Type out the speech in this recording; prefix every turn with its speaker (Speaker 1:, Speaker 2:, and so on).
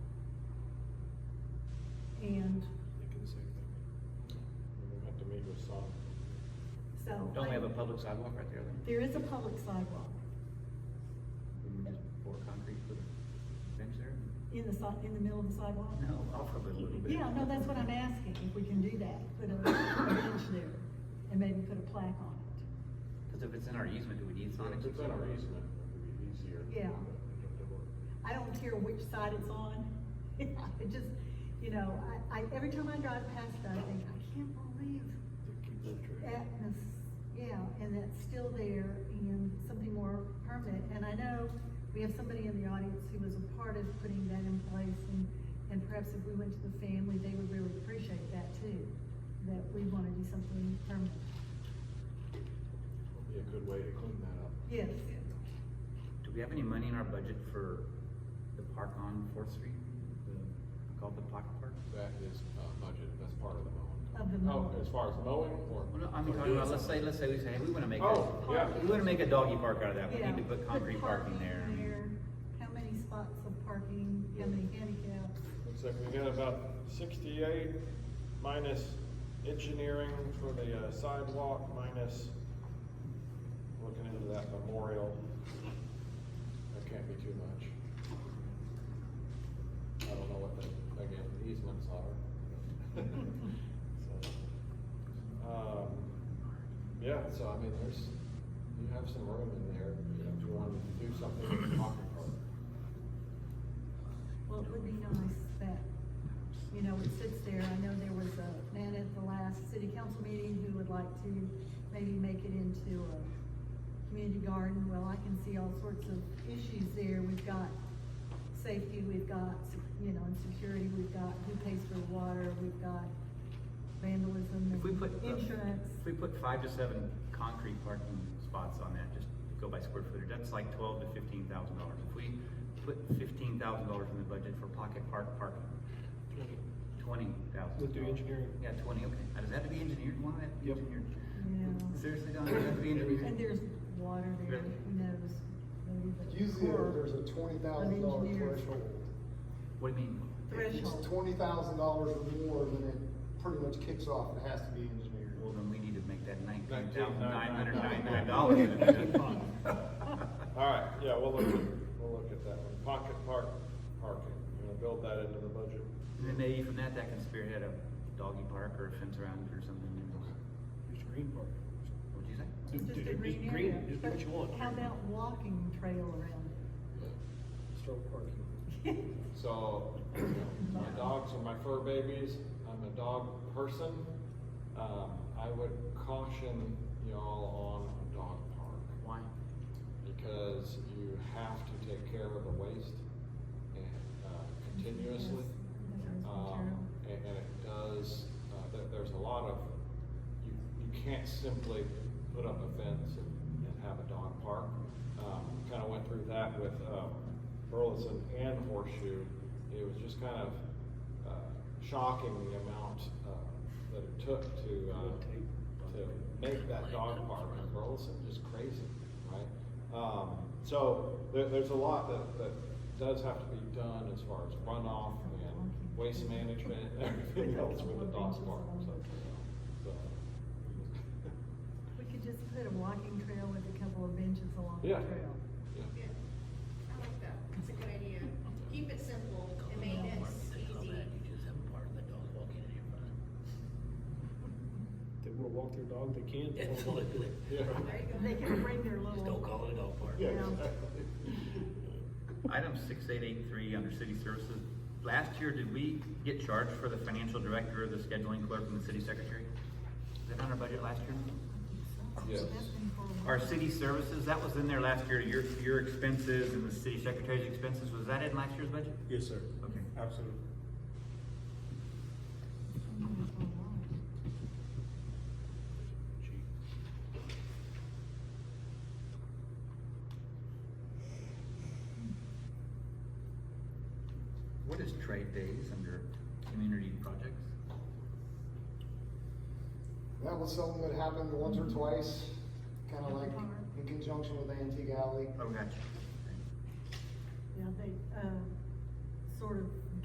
Speaker 1: and
Speaker 2: Thinking the same thing. We're gonna have to meet with some.
Speaker 1: so.
Speaker 3: Don't we have a
Speaker 1: Oh, I-
Speaker 3: public sidewalk right there? then?
Speaker 1: There is a public sidewalk
Speaker 3: Can we just pour concrete for the bench there?
Speaker 1: in the si- in the middle of the sidewalk.
Speaker 3: No, off of it a little bit.
Speaker 1: Yeah, no, that's what I'm asking, if we can do that, put a a bench there and maybe put a plaque on it.
Speaker 3: Cause if it's in our easement, do we need
Speaker 2: If
Speaker 3: sonics?
Speaker 2: it's in our easement, it would be easier.
Speaker 1: Yeah.
Speaker 2: but we have to work.
Speaker 1: I don't care which side it's on. I just, you know, I, I, every time I drive past that, I think, I can't believe that, mis- yeah, and that's still there and something more permanent. And I know we have somebody in the audience who was a part of putting that in place and, and perhaps if we went to the family, they would really appreciate that too, that we want to do something permanent.
Speaker 2: Would Be a good way to clean that up.
Speaker 1: Yes,
Speaker 3: Do we have any money in our budget for the park on Fourth Street? The, called the pocket park?
Speaker 2: That is, uh, budget, that's part of the mowing.
Speaker 1: Of the mowing.
Speaker 2: Oh, as far as mowing or?
Speaker 3: Well, no, I mean,
Speaker 2: or
Speaker 3: talking
Speaker 2: doing
Speaker 3: about, let's say,
Speaker 2: something.
Speaker 3: let's say we say, hey, we wanna make
Speaker 2: Oh,
Speaker 3: a,
Speaker 2: yeah.
Speaker 3: we wanna make a doggy park out of that, we
Speaker 1: yeah.
Speaker 3: need to put concrete parking there.
Speaker 1: there, How many spots of parking, how many handicaps?
Speaker 2: Looks like we got about sixty-eight minus engineering for the uh, sidewalk, minus looking into that memorial. That can't be too much. I don't know what the, again, easements are. So, um, Yeah, so I mean, there's, you have some room in there, you know, if you wanted to do something with the pocket park.
Speaker 1: Well, it would be nice that, you know, it sits there, I know there was a man at the last city council meeting who would like to maybe make it into a community garden, well, I can see all sorts of issues there, we've got safety, we've got, you know, and security, we've got who pays for the water, we've got vandalism
Speaker 3: If we put,
Speaker 1: and
Speaker 3: uh,
Speaker 1: insurance.
Speaker 3: if we put five to seven concrete parking spots on that, just go by square footage, that's like twelve to fifteen thousand dollars. If we put fifteen thousand dollars in the budget for pocket park parking, twenty thousand.
Speaker 2: We'll do engineering.
Speaker 3: Yeah, twenty, okay. Now, does that have to be engineered? Why does that have to be
Speaker 2: Yep.
Speaker 3: engineered?
Speaker 1: Yeah,
Speaker 3: Seriously, Don, does that have to be engineered?
Speaker 1: and there's water there,
Speaker 3: Really?
Speaker 1: who knows? maybe the
Speaker 4: Usually,
Speaker 1: horror
Speaker 4: there's a twenty thousand dollar
Speaker 1: engineer.
Speaker 4: threshold.
Speaker 3: What do you mean?
Speaker 4: If
Speaker 1: Threshold.
Speaker 4: it's twenty thousand dollars or more, then it pretty much kicks off, and it has to be engineered.
Speaker 3: Well, then we need to make that nineteen thousand nine hundred ninety-nine dollars.
Speaker 4: $19,999.
Speaker 2: All right, yeah, we'll look, at- we'll look at that one. Pocket park, parking, you know, build that into the budget.
Speaker 3: And then maybe from that, that can spearhead a doggy park or a fence around it or something, you know.
Speaker 5: Just green park.
Speaker 3: What'd you say?
Speaker 1: Just a green
Speaker 5: Just
Speaker 1: area.
Speaker 5: Just do what you want.
Speaker 1: But How about walking trail around
Speaker 5: Stroke parking.
Speaker 1: it?
Speaker 2: So, you know, my dogs are my fur babies, I'm a dog person. Um, I would caution y'all on a dog park.
Speaker 3: Why?
Speaker 2: Because you have to take care of the waste and, uh, continuously.
Speaker 1: Yes,
Speaker 2: Um, and, and it does, uh, there, there's a lot of, you, you can't simply put up a fence and, and have a dog park. Um, kinda went through that with, um, Burleson and Horseshoe. It was just kind of, uh, shocking the amount, uh, that it took to, uh, to make that dog park in Burleson, just crazy, right? Um, so there, there's a lot that, that does have to be done as far as runoff and waste management and everything else with the dog park, so. so.
Speaker 1: We could just put a walking trail with a couple of benches along the
Speaker 2: Yeah.
Speaker 1: trail.
Speaker 2: Yeah.
Speaker 6: Yeah, I like that, it's a good idea, keep it simple and make it easy.
Speaker 5: They wanna walk their dog, they can.
Speaker 2: Yeah.
Speaker 6: There
Speaker 1: They
Speaker 6: you go.
Speaker 1: can bring their little.
Speaker 7: Just don't call it a dog park.
Speaker 2: Yeah,
Speaker 1: Yeah.
Speaker 2: exactly.
Speaker 3: Item six eight eight three under city services. Last year, did we get charged for the financial director, the scheduling clerk, and the city secretary? Is that on our budget last year?
Speaker 2: Yes.
Speaker 1: That's been for a while.
Speaker 3: Our city services, that was in there last year, your, your expenses and the city secretary's expenses, was that in last year's budget?
Speaker 7: Yes, sir.
Speaker 3: Okay.
Speaker 7: Absolutely.
Speaker 1: It's been for a while.
Speaker 3: What is trade days under community projects?
Speaker 4: That was something that happened once or twice, kinda like in conjunction with Antique Alley.
Speaker 3: Oh, gotcha.
Speaker 1: Yeah, they, uh, sort of